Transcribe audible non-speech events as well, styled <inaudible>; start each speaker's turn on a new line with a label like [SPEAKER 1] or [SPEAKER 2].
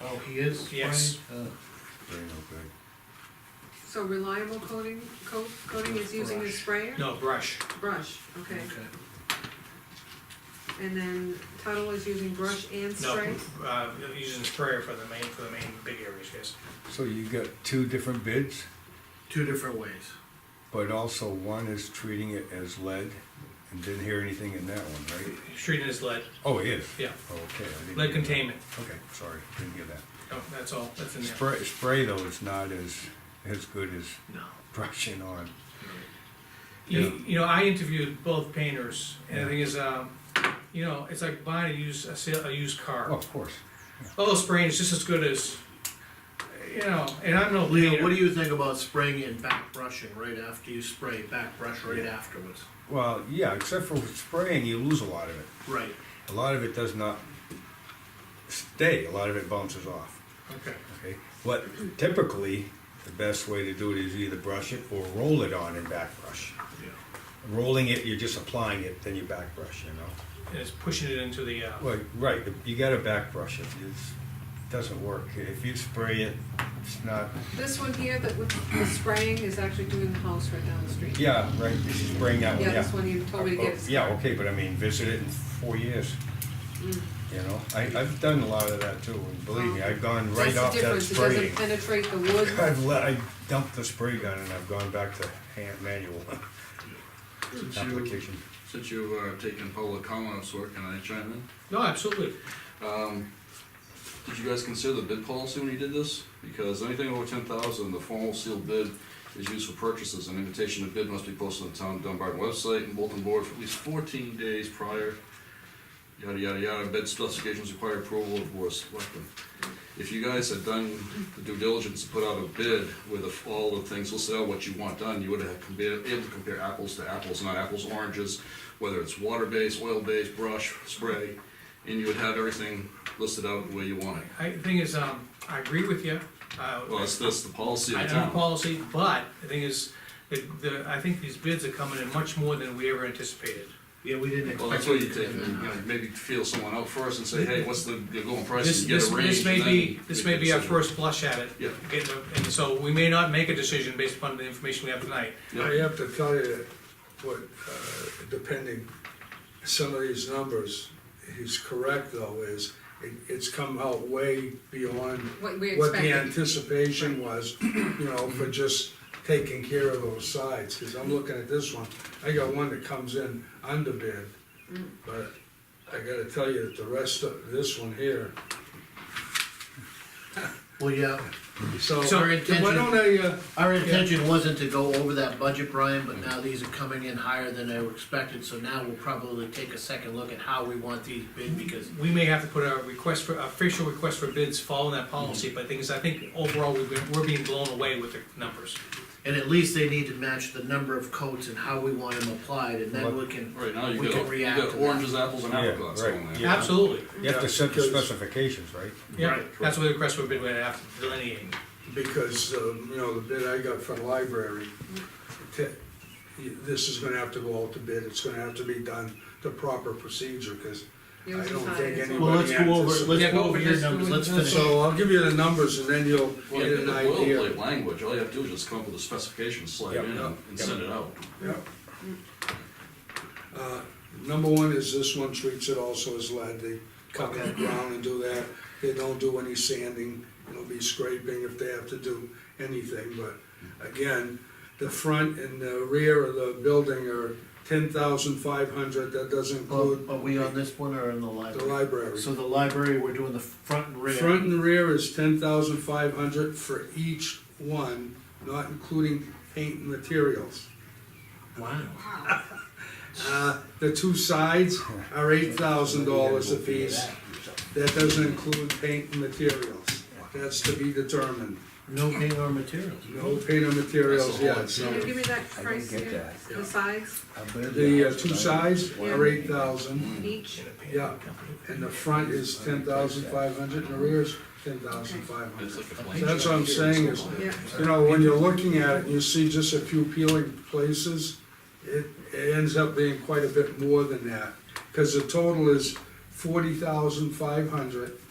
[SPEAKER 1] Oh, he is spraying?
[SPEAKER 2] Yes.
[SPEAKER 1] Oh,
[SPEAKER 3] Very no big.
[SPEAKER 4] So reliable coating, coat, coating is using a
[SPEAKER 1] Brush.
[SPEAKER 4] sprayer?
[SPEAKER 2] No, brush.
[SPEAKER 4] Brush, okay,
[SPEAKER 1] okay.
[SPEAKER 4] and then Tuttle is using brush and
[SPEAKER 2] No,
[SPEAKER 4] spray?
[SPEAKER 2] uh, using sprayer for the main, for the main big areas, yes.
[SPEAKER 3] So you got two different bids,
[SPEAKER 1] Two different ways.
[SPEAKER 3] but also one is treating it as lead, and didn't hear anything in that one, right?
[SPEAKER 2] Treating is lead,
[SPEAKER 3] Oh, it is?
[SPEAKER 2] yeah,
[SPEAKER 3] Okay. I
[SPEAKER 2] lead
[SPEAKER 3] didn't hear that.
[SPEAKER 2] containment.
[SPEAKER 3] Okay, sorry, didn't hear that.
[SPEAKER 2] No, that's all, that's in there.
[SPEAKER 3] Spray, spray though is not as, as good as
[SPEAKER 2] No.
[SPEAKER 3] brushing on.
[SPEAKER 2] You, you know, I interviewed both painters, and the thing is, um, you know, it's like buying a used, a sale, a used
[SPEAKER 3] Oh,
[SPEAKER 2] car.
[SPEAKER 3] of course.
[SPEAKER 2] Oh, spraying is just as good as, you know, and I'm no
[SPEAKER 1] Leo, what do
[SPEAKER 2] painter.
[SPEAKER 1] you think about spraying and back brushing right after you spray, back brush right afterwards?
[SPEAKER 3] Well, yeah, except for with spraying, you lose a lot of it.
[SPEAKER 1] Right,
[SPEAKER 3] A lot of it does not stay, a lot of it bounces off,
[SPEAKER 2] Okay,
[SPEAKER 3] okay? What typically, the best way to do it is either brush it or roll it on and back brush.
[SPEAKER 1] yeah.
[SPEAKER 3] Rolling it, you're just applying it, then you back brush, you know?
[SPEAKER 2] and it's pushing it into the, uh,
[SPEAKER 3] Well, right, you gotta back brush it, it's, doesn't work. If you spray it, it's not,
[SPEAKER 4] This one here that with the spraying is actually doing the house right down the street?
[SPEAKER 3] yeah, right, this is spraying that one, yeah.
[SPEAKER 4] Yeah, this one you told me to
[SPEAKER 3] Oh,
[SPEAKER 4] get. is-
[SPEAKER 3] Yeah, okay, but I mean, visit it in four years.
[SPEAKER 4] Mm.
[SPEAKER 3] You know, I, I've done a lot of that too, and believe me, I've gone
[SPEAKER 4] That's
[SPEAKER 3] right
[SPEAKER 4] the
[SPEAKER 3] off that
[SPEAKER 4] difference, it doesn't
[SPEAKER 3] spraying.
[SPEAKER 4] penetrate the wood.
[SPEAKER 3] <laughs> I've let, I dumped the spray gun and I've gone back to hand manual <laughs>
[SPEAKER 5] Since you,
[SPEAKER 3] application.
[SPEAKER 5] since you've uh, taken public comments, work, can I chime
[SPEAKER 2] no, absolutely.
[SPEAKER 5] in? Um, Did you guys consider the bid policy when you did this? Because anything over ten thousand, the formal sealed bid is used for purchases. An invitation to bid must be posted on the town Dunbarton website and bulletin board for at least fourteen days prior. Yada, yada, yada, bid specifications require approval of board of selectmen. If you guys had done the due diligence to put out a bid with the- all the things listed out, what you want done, you would have been able to compare apples to apples, not apples, to oranges, whether it's water-based, oil-based, brush, spray, and you would have everything listed out the way you want it.
[SPEAKER 2] I, the thing is, um, I agree with you. Uh,
[SPEAKER 5] Well, that's, that's the policy
[SPEAKER 2] I
[SPEAKER 5] of the
[SPEAKER 2] know
[SPEAKER 5] town.
[SPEAKER 2] policy, but the thing is, the, the, I think these bids are coming in much more than we ever anticipated.
[SPEAKER 1] Yeah, we didn't expect.
[SPEAKER 5] Well, that's why you
[SPEAKER 1] it to
[SPEAKER 5] take,
[SPEAKER 1] come
[SPEAKER 5] you
[SPEAKER 1] in.
[SPEAKER 5] know, maybe feel someone out first and say, hey, what's the, the going price,
[SPEAKER 2] This,
[SPEAKER 5] and get
[SPEAKER 2] this,
[SPEAKER 5] a range.
[SPEAKER 2] this may
[SPEAKER 5] and then
[SPEAKER 2] be, this
[SPEAKER 5] make
[SPEAKER 2] may
[SPEAKER 5] a
[SPEAKER 2] be our
[SPEAKER 5] decision.
[SPEAKER 2] first blush at it.
[SPEAKER 5] Yeah.
[SPEAKER 2] Getting a- And so we may not make a decision based upon the information we have tonight.
[SPEAKER 5] Yeah.
[SPEAKER 6] I have to tell you that what, uh, depending, some of these numbers, he's correct though, is it, it's come out way beyond
[SPEAKER 4] What we
[SPEAKER 6] what the
[SPEAKER 4] expected.
[SPEAKER 6] anticipation was, you know, for just taking care of those sides, cause I'm looking at this one, I got one that comes in under bid,
[SPEAKER 4] Mm.
[SPEAKER 6] but I gotta tell you that the rest of this one here,
[SPEAKER 1] Well, yeah,
[SPEAKER 6] so,
[SPEAKER 2] So,
[SPEAKER 6] why don't I, uh,
[SPEAKER 1] our intention wasn't to go over that budget, Brian, but now these are coming in higher than they were expected, so now we'll probably take a second look at how we want these bid, because
[SPEAKER 2] We may have to put a request for, official request for bids following that policy,
[SPEAKER 5] Mm-hmm.
[SPEAKER 2] but the thing is, I think overall, we've been, we're being blown away with the numbers.
[SPEAKER 1] And at least they need to match the number of coats and how we want them applied, and then we can,
[SPEAKER 5] Right now,
[SPEAKER 1] we
[SPEAKER 5] you
[SPEAKER 1] can
[SPEAKER 5] got, you
[SPEAKER 1] react to
[SPEAKER 5] got
[SPEAKER 1] that.
[SPEAKER 5] oranges, apples, and
[SPEAKER 3] Yeah,
[SPEAKER 5] apricots
[SPEAKER 3] right,
[SPEAKER 5] going there.
[SPEAKER 3] yeah.
[SPEAKER 2] Absolutely.
[SPEAKER 3] You have to set the
[SPEAKER 6] Yeah, 'cause-
[SPEAKER 3] specifications, right?
[SPEAKER 2] Yeah,
[SPEAKER 1] Right.
[SPEAKER 2] that's what the request for bid we have to delineate.
[SPEAKER 6] because, um, you know, the bid I got from the library, te- this is gonna have to go out to bid, it's gonna have to be done the proper procedure, cause
[SPEAKER 4] Yours
[SPEAKER 6] I
[SPEAKER 4] is
[SPEAKER 6] don't
[SPEAKER 4] high,
[SPEAKER 6] think
[SPEAKER 4] it's-
[SPEAKER 1] well, let's
[SPEAKER 6] anybody
[SPEAKER 1] go over,
[SPEAKER 6] anticipated.
[SPEAKER 1] let's
[SPEAKER 2] Yeah,
[SPEAKER 1] go
[SPEAKER 2] go
[SPEAKER 1] over
[SPEAKER 2] over
[SPEAKER 1] your
[SPEAKER 2] this,
[SPEAKER 1] numbers, let's
[SPEAKER 4] let's-
[SPEAKER 1] finish.
[SPEAKER 6] So I'll give you the numbers and then you'll
[SPEAKER 5] Well,
[SPEAKER 6] get
[SPEAKER 5] you
[SPEAKER 6] an
[SPEAKER 5] got the
[SPEAKER 6] idea.
[SPEAKER 5] boilerplate language, all you have to do is just come up with a specification, slide
[SPEAKER 3] Yeah.
[SPEAKER 5] it in, and and send it out.
[SPEAKER 6] Yeah. Uh, Number one is this one treats it also as lead, they cut that ground and do that, they don't do any sanding, it'll be scraping if they have to do anything, but again, the front and the rear of the building are ten thousand five hundred, that doesn't
[SPEAKER 1] Are are
[SPEAKER 6] include
[SPEAKER 1] we on this one or in the
[SPEAKER 6] the
[SPEAKER 1] library?
[SPEAKER 6] library.
[SPEAKER 1] So the library, we're doing the front and rear.
[SPEAKER 6] Front and rear is ten thousand five hundred for each one, not including paint and materials.
[SPEAKER 1] Wow.
[SPEAKER 6] Uh, The two sides are eight thousand dollars apiece. That doesn't include paint and materials. That's to be determined.
[SPEAKER 1] No paint or materials.
[SPEAKER 6] No paint and materials yet.
[SPEAKER 4] Can you give me that
[SPEAKER 3] I don't
[SPEAKER 4] price
[SPEAKER 3] get
[SPEAKER 4] again?
[SPEAKER 3] that.
[SPEAKER 4] The size
[SPEAKER 6] The uh, two sides are eight thousand,
[SPEAKER 4] each?
[SPEAKER 6] yeah, and the front is ten thousand five hundred and the rear is ten thousand five
[SPEAKER 5] It's
[SPEAKER 6] hundred.
[SPEAKER 5] like a blank
[SPEAKER 6] That's
[SPEAKER 5] sheet.
[SPEAKER 6] what I'm saying is,
[SPEAKER 4] Yeah,
[SPEAKER 6] you know, when you're looking at it, you see just a few peeling places, it, it ends up being quite a bit more than that. Cause the total is forty thousand five hundred